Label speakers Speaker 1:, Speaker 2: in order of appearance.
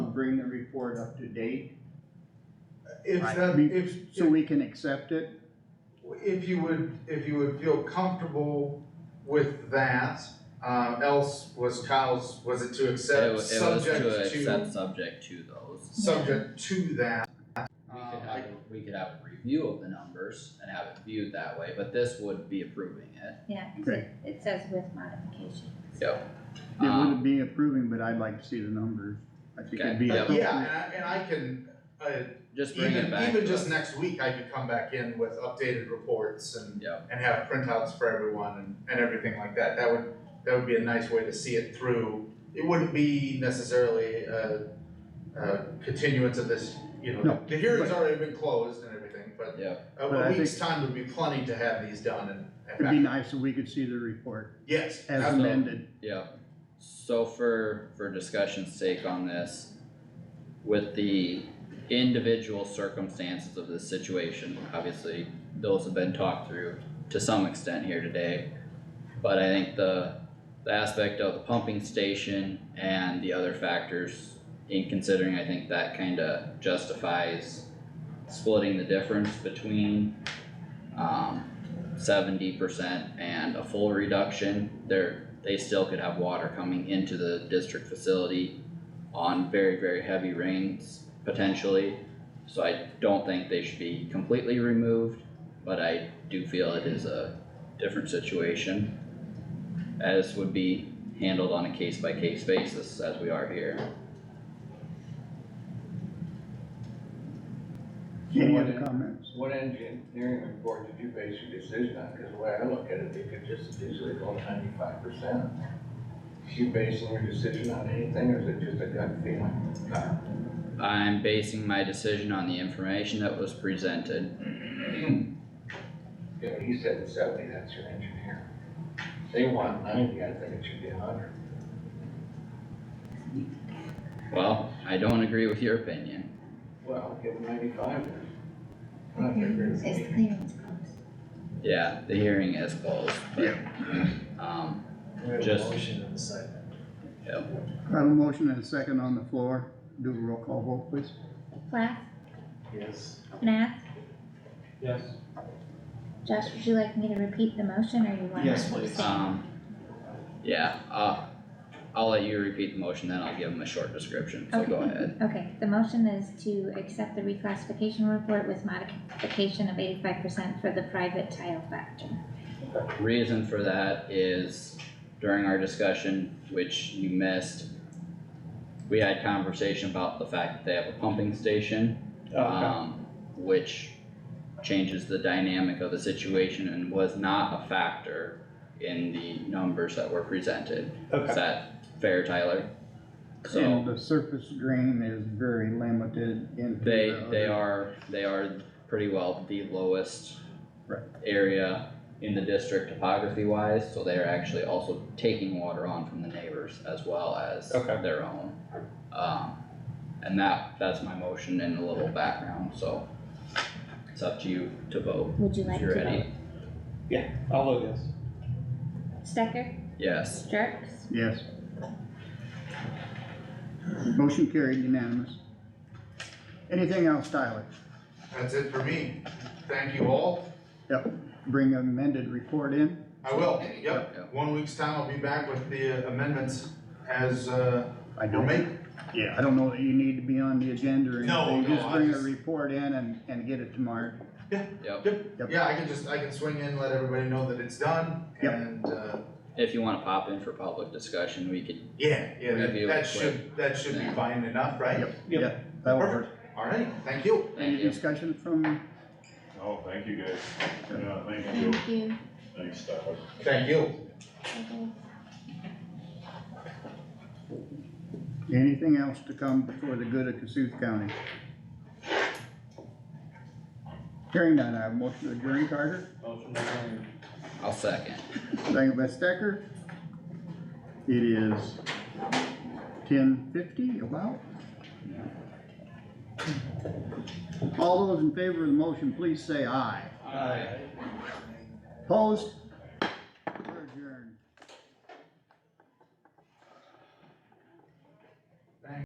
Speaker 1: report up to date,
Speaker 2: If
Speaker 3: Right.
Speaker 2: that,
Speaker 1: We-
Speaker 2: if,
Speaker 1: so we can accept it?
Speaker 2: if you would, if you would feel comfortable with that, uh, else was Kyle's, was it to
Speaker 3: It, wa- it
Speaker 2: accept,
Speaker 3: was
Speaker 2: subject
Speaker 3: to
Speaker 2: to,
Speaker 3: accept subject to those. Um,
Speaker 2: subject to that?
Speaker 3: We
Speaker 2: Uh,
Speaker 3: could
Speaker 2: I-
Speaker 3: have, a- we could have a review of the numbers and have it viewed that way, but this would be approving it.
Speaker 4: Yeah,
Speaker 1: Okay.
Speaker 4: it says with modification.
Speaker 3: Yep.
Speaker 1: It wouldn't
Speaker 3: Um,
Speaker 1: be approving, but I'd like to see the numbers. I think it'd be
Speaker 3: Okay.
Speaker 1: appropriate.
Speaker 2: Yeah, and I, and I can, uh,
Speaker 3: just bring it
Speaker 2: even,
Speaker 3: back.
Speaker 2: even
Speaker 3: to
Speaker 2: just
Speaker 3: us.
Speaker 2: next week, I could come back in with updated reports and,
Speaker 3: Yep,
Speaker 2: and have printouts for everyone and, and everything like that. That would, that would be a nice way to see it through. It wouldn't be necessarily a, a continuance of this, you know,
Speaker 1: No,
Speaker 2: the hearing's
Speaker 1: but-
Speaker 2: already been closed and everything, but
Speaker 3: yep,
Speaker 2: a-
Speaker 1: But I
Speaker 2: a week's time would be plenty to have these done and, and
Speaker 1: It'd be
Speaker 2: back.
Speaker 1: nice if we could see the report
Speaker 2: Yes,
Speaker 1: as
Speaker 3: Absolutely.
Speaker 2: ab-
Speaker 1: amended.
Speaker 3: yep. So for, for discussion's sake on this, with the individual circumstances of this situation, obviously, those have been talked through to some extent here today. But I think the, the aspect of the pumping station and the other factors in considering, I think that kinda justifies splitting the difference between, um, seventy percent and a full reduction. There, they still could have water coming into the district facility on very, very heavy rains potentially. So I don't think they should be completely removed, but I do feel it is a different situation. As would be handled on a case by case basis as we are here.
Speaker 1: Any
Speaker 5: What
Speaker 1: other
Speaker 5: en-
Speaker 1: comments?
Speaker 5: What engineering report did you base your decision on? Cause the way I look at it, you could just easily go ninety-five percent. You basing your decision on anything or is it just a gut feeling?
Speaker 3: I'm basing my decision on the information that was presented.
Speaker 5: You know, he said seventy, that's your engineer. They want ninety, I think it should be hundred.
Speaker 3: Well, I don't agree with your opinion.
Speaker 5: Well, give them ninety-five then. I don't agree with
Speaker 4: It's
Speaker 5: you.
Speaker 4: clear, it's closed.
Speaker 3: Yeah, the hearing is closed, but, um,
Speaker 6: We have a
Speaker 3: Just-
Speaker 6: motion and a second.
Speaker 1: I have a motion and a second on the floor. Do a roll call vote, please.
Speaker 4: Plath,
Speaker 6: Yes.
Speaker 4: Nath,
Speaker 6: Yes.
Speaker 4: Josh, would you like me to repeat the motion or you want?
Speaker 6: Yes,
Speaker 4: to
Speaker 6: please.
Speaker 4: abstain?
Speaker 3: um, yeah, uh, I'll let you repeat the motion, then I'll give them a short description, so go
Speaker 4: Okay.
Speaker 3: ahead.
Speaker 4: Okay, the motion is to accept the reclassification report with modification of eighty-five percent for the private tile factor.
Speaker 3: Reason for that is during our discussion, which you missed, we had conversation about the fact that they have a pumping station. um, which changes the dynamic of the situation and was not a factor in the numbers that were presented. Is that fair, Tyler?
Speaker 1: And
Speaker 3: So
Speaker 1: the surface drain is very limited into
Speaker 3: they,
Speaker 1: the
Speaker 3: they
Speaker 1: other-
Speaker 3: are, they are pretty well the lowest
Speaker 1: Right.
Speaker 3: area in the district topography wise, so they are actually also taking water on from the neighbors as well as
Speaker 7: Okay.
Speaker 3: their own. Um, and that, that's my motion and a little background, so it's up to you to vote.
Speaker 4: Would you like
Speaker 3: If
Speaker 4: to
Speaker 3: you're
Speaker 4: vote?
Speaker 3: ready,
Speaker 7: I'll vote yes.
Speaker 4: Stecker,
Speaker 3: yes.
Speaker 4: Jerks,
Speaker 1: Yes. Motion carried unanimous. Anything else, Tyler?
Speaker 2: that's it for me. Thank you all.
Speaker 1: Yep, bring amended report in.
Speaker 2: I will, yep.
Speaker 3: Yep.
Speaker 2: One week's time, I'll be back with the amendments as, uh,
Speaker 1: I
Speaker 2: were
Speaker 1: don't,
Speaker 2: made.
Speaker 1: yeah, I don't know that you need to be on the agenda or anything.
Speaker 2: No, no,
Speaker 1: Just
Speaker 2: I
Speaker 1: bring a
Speaker 2: just-
Speaker 1: report in and, and get it tomorrow.
Speaker 3: Yep,
Speaker 2: Yeah, I can just, I can swing in, let everybody know that it's done
Speaker 1: Yep.
Speaker 2: and, uh,
Speaker 3: if you wanna pop in for public discussion, we could,
Speaker 2: yeah, yeah,
Speaker 3: Review
Speaker 2: that,
Speaker 3: it
Speaker 2: that should, that should be
Speaker 3: Yeah.
Speaker 2: fine enough, right?
Speaker 1: Yep, yep, that'll work.
Speaker 2: Perfect. All right, thank you.
Speaker 3: thank
Speaker 1: Any
Speaker 3: you.
Speaker 1: discussion from,
Speaker 8: Oh, thank you guys. Yeah, thank you.
Speaker 4: thank you.
Speaker 8: Thanks, Doc.
Speaker 2: Thank you.
Speaker 4: Okay.
Speaker 1: anything else to come before the good of Cassuth County? Hearing none, I have a motion to adjourn, Carter,
Speaker 6: Motion to adjourn.
Speaker 3: I'll second.
Speaker 1: second by Stecker. It is ten fifty, about. All those in favor of the motion, please say aye.
Speaker 6: Aye.
Speaker 1: Opposed?